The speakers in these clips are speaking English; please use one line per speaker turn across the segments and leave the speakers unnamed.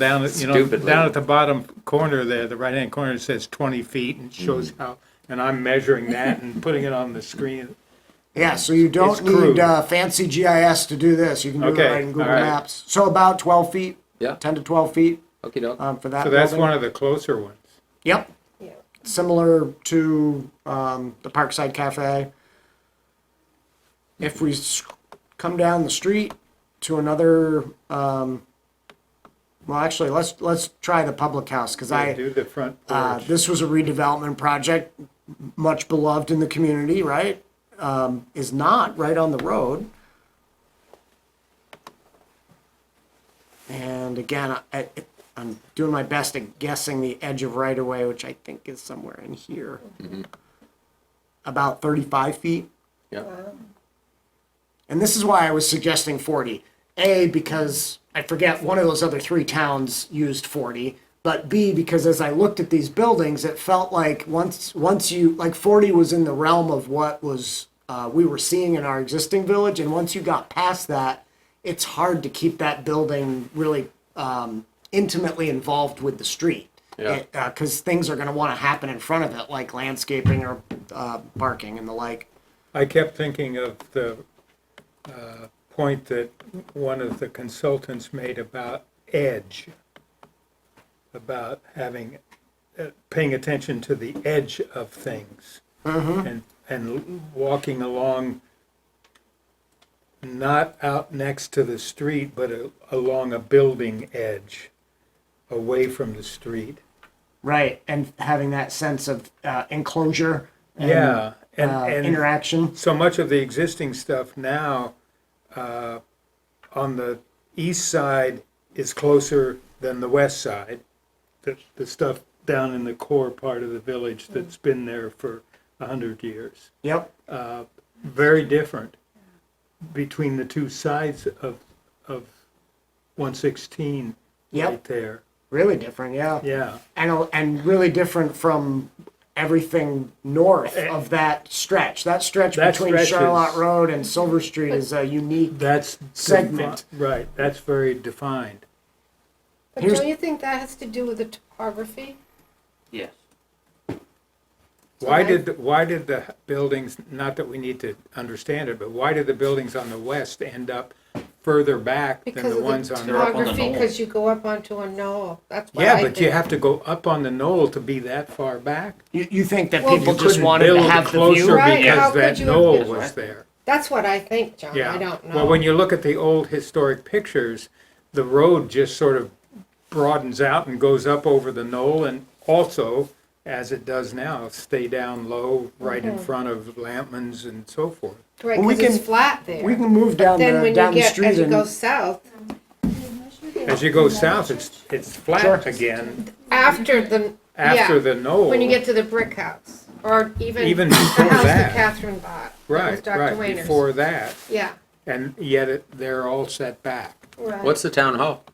down, at- you know,
Stupidly.
down at the bottom corner there, the right-hand corner, it says 20 feet and shows how, and I'm measuring that and putting it on the screen.
Yeah, so you
It's
don't
crude.
need uh, fancy GIS to do this. You can do
Okay,
it right in Google
all right.
Maps. So about 12 feet,
Yeah.
10 to 12 feet
Okey doke.
um, for that.
So that's
building.
one of the closer ones.
Yep. Similar to um, the Parkside Cafe. If we s- come down the street to another, um, well, actually, let's let's try the public house because I.
Do the front
Uh,
porch.
this was a redevelopment project, m- much beloved in the community, right? Um, is not right on the road. And again, I, I, I'm doing my best at guessing the edge of right of way, which I think is somewhere in here. About 35 feet.
Yeah.
And this is why I was suggesting 40. A, because I forget one of those other three towns used 40. But B, because as I looked at these buildings, it felt like once once you like 40 was in the realm of what was uh, we were seeing in our existing village, and once you got past that, it's hard to keep that building really um, intimately involved with the street.
Yeah.
Because things are going to want to happen in front of it, like landscaping or uh, parking and the like.
I kept thinking of the uh, point that one of the consultants made about edge, about having, uh, paying attention to the edge of things.
Mm-hmm.
And, and walking along, not out next to the street, but a- along a building edge, away from the street.
Right, and having that sense of uh, enclosure and
Yeah, and,
uh,
and.
interaction.
so much of the existing stuff now uh, on the east side is closer than the west side. The, the stuff down in the core part of the village
Mm.
that's been there for a hundred years.
Yep.
Very different between the two sides of of 116 right
Yep.
there.
Really different, yeah.
Yeah,
And a- and really different from everything north of that stretch. Eh. That stretch
That
between
stretch is-
Charlotte Road and Silver Street is a unique.
that's defi-
Segment.
right, that's very defined.
But
Here's-
don't you think that has to do with the topography?
Yes.
Why
I-
did, the- why did the buildings, not that we need to understand it, but why did the buildings on the west end up further back than
Because
the
of
ones
the
on the?
top.
topography,
knoll.
because you go up onto a knoll, that's what
Yeah,
I
but you
think.
have to go up on the knoll to be that far back.
You, you think that
Well,
people
You
just
couldn't
wanted to
build
have the
closer
view?
Right, how
Because
could
that
you have
knoll
built-
was there,
That's what I think, John,
yeah.
I don't
Well, when
know.
you look at the old historic pictures, the road just sort of broadens out and goes up over the knoll and also, as it does now, stay down low right in
Mm-hmm.
front of Lampman's and so forth.
Right,
Well, we
'cause
can-
it's flat there.
We can move down
Then
the
when you
down the
get,
street
as you go
and
south,
As you go south, it's, it's flat again
after the,
after
yeah,
the knoll.
when you get to the brick house, or even
Even
the
before
house
that.
that Catherine bought. that was
Right,
Dr.
right,
Wayner's.
before that,
Yeah,
and yet it, they're all set back.
right.
What's the town hall?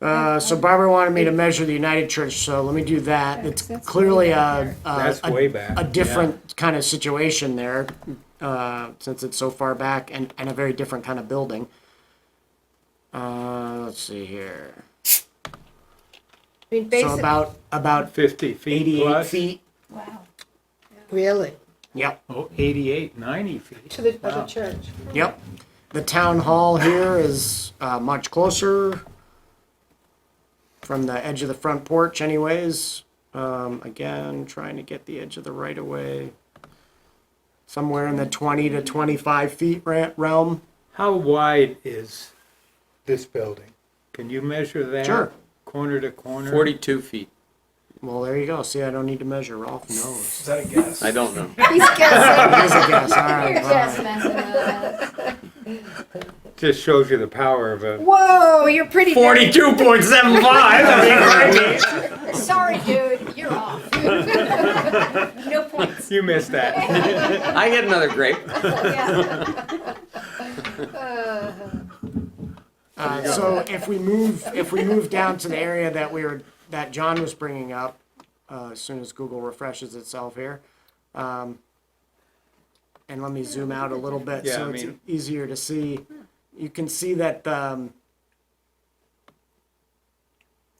uh, so Barbara wanted me to measure the United Church, so let me do that. It's
that's
clearly
way back
a,
there.
a
That's
Uh, a
way back.
a different kind of situation there, uh, since it's so far back and, and a very different kind of building. Uh, let's see here.
I mean,
So
basically,
about about
Fifty feet
eighty-eight
plus.
feet.
really,
Yep,
Oh, eighty-eight, ninety feet.
to the, to the
Wow.
church.
yep. The town hall here is uh, much closer from the edge of the front porch, anyways. Um, again, trying to get the edge of the right of way. Somewhere in the twenty to twenty-five feet ra- realm.
How wide is this building? Can you measure that?
Sure.
Corner to corner?
Forty-two feet.
Well, there you go. See, I don't need to measure. Ralph knows.
Is that a guess?
I don't know.
He's guessing.
That is a guess. All right. all
Just
right.
messing with us.
Just shows you the power of a,
Whoa, you're pretty.
Forty-two point seven five.
Sorry, dude, you're off. No points.
you missed that.
I get another grape.
Yeah.
Uh, so if we move, if we move down to the area that we were, that John was bringing up, uh, as soon as Google refreshes itself here, um, and let me zoom out a little bit
Yeah, I
so it's
mean-
easier to see. You can see that um,